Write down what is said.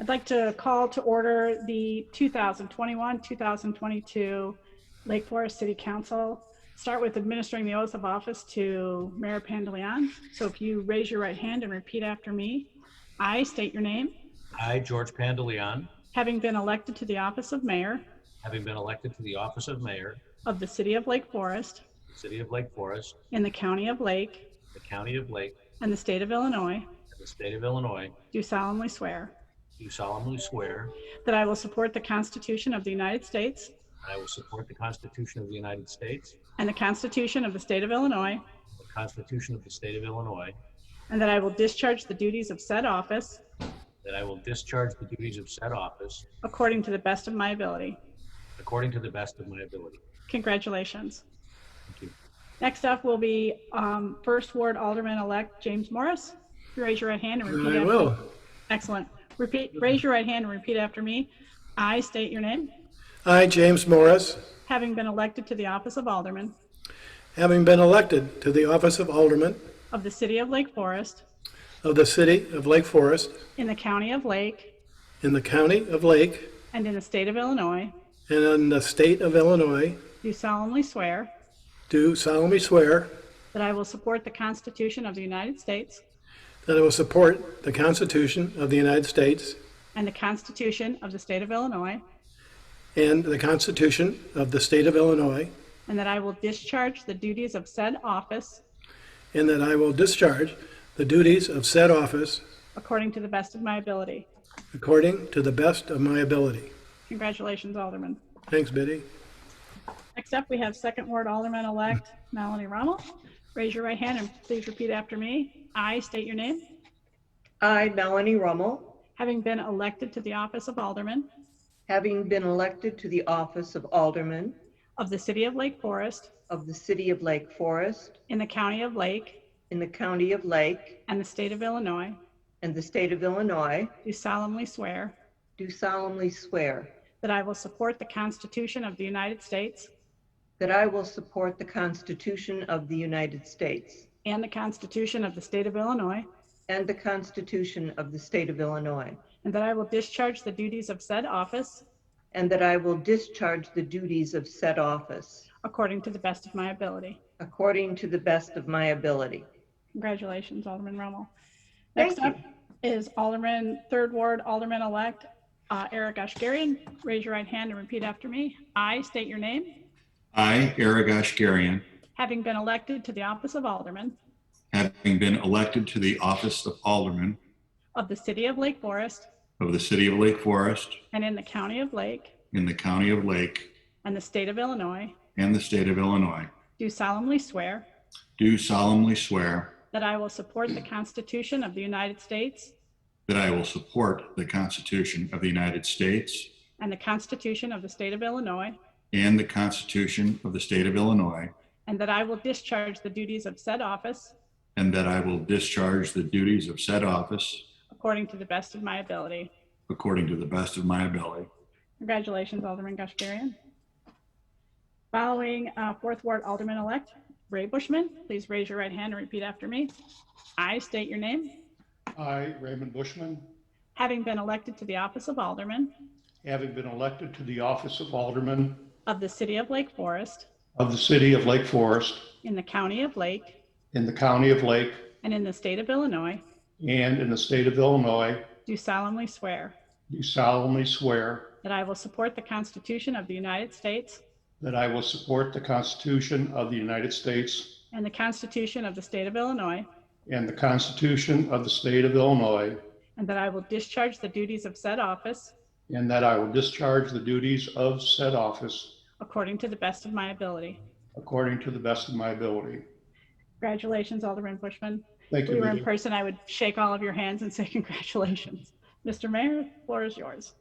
I'd like to call to order the 2021, 2022 Lake Forest City Council. Start with administering the oath of office to Mayor Pandeleon. So if you raise your right hand and repeat after me, I state your name, I, George Pandeleon, having been elected to the office of mayor having been elected to the office of mayor of the city of Lake Forest of the city of Lake Forest, in the county of Lake the county of Lake, and the state of Illinois, and the state of Illinois, do solemnly swear do solemnly swear that I will support the Constitution of the United States that I will support the Constitution of the United States, and the Constitution of the state of Illinois, the Constitution of the state of Illinois, and that I will discharge the duties of said office that I will discharge the duties of said office according to the best of my ability. according to the best of my ability. Congratulations. Thank you. Next up will be um, First Ward Alderman-elect James Morris. If you Raise your right hand and repeat I after will. Excellent. Repeat, raise your right hand and repeat after me. I state your name, I, James Morris, having been elected to the office of Alderman having been elected to the office of Alderman of the City of Lake Forest of the city of Lake Forest in the County of Lake in the county of Lake and in the state of Illinois, and in the state of Illinois, do solemnly swear do solemnly swear that I will support the Constitution of the United States that I will support the Constitution of the United States and the Constitution of the state of Illinois, and the Constitution of the state of Illinois, and that I will discharge the duties of said office and that I will discharge the duties of said office according to the best of my ability. according to the best of my ability. Congratulations, Alderman. Thanks, Biddy. Next up, we have Second Ward Alderman-elect Melanie Rummel. Raise your right hand and please repeat after me. I state your name, I, Melanie Rummel, having been elected to the office of Alderman having been elected to the office of Alderman of the City of Lake Forest of the City of Lake Forest in the County of Lake in the County of Lake and the State of Illinois, and the State of Illinois, do solemnly swear do solemnly swear that I will support the Constitution of the United States that I will support the Constitution of the United States and the Constitution of the State of Illinois, and the Constitution of the State of Illinois, and that I will discharge the duties of said office and that I will discharge the duties of said office according to the best of my ability. according to the best of my ability. Congratulations, Alderman Rummel. Thank Next up is Alderman, Third Ward Alderman-elect uh, Eric Ashgarian. Raise your right hand and repeat after me. I state your name, I, Eric Ashgarian, having been elected to the office of Alderman having been elected to the office of Alderman of the City of Lake Forest of the City of Lake Forest and in the County of Lake in the County of Lake and the State of Illinois, and the State of Illinois, do solemnly swear do solemnly swear that I will support the Constitution of the United States that I will support the Constitution of the United States and the Constitution of the State of Illinois, and the Constitution of the State of Illinois, and that I will discharge the duties of said office and that I will discharge the duties of said office according to the best of my ability. according to the best of my ability. Congratulations, Alderman Gashgarian. Following uh, Fourth Ward Alderman-elect Ray Bushman, please raise your right hand and repeat after me. I state your name, I, Raymond Bushman, having been elected to the office of Alderman having been elected to the office of Alderman of the City of Lake Forest of the City of Lake Forest in the County of Lake in the County of Lake and in the State of Illinois, and in the State of Illinois, do solemnly swear do solemnly swear that I will support the Constitution of the United States that I will support the Constitution of the United States and the Constitution of the State of Illinois, and the Constitution of the State of Illinois, and that I will discharge the duties of said office and that I will discharge the duties of said office according to the best of my ability. according to the best of my ability. Congratulations, Alderman Bushman. Thank If we you. were in Vivian. person, I would shake all of your hands and say congratulations. Mr. Mayor, the floor is yours.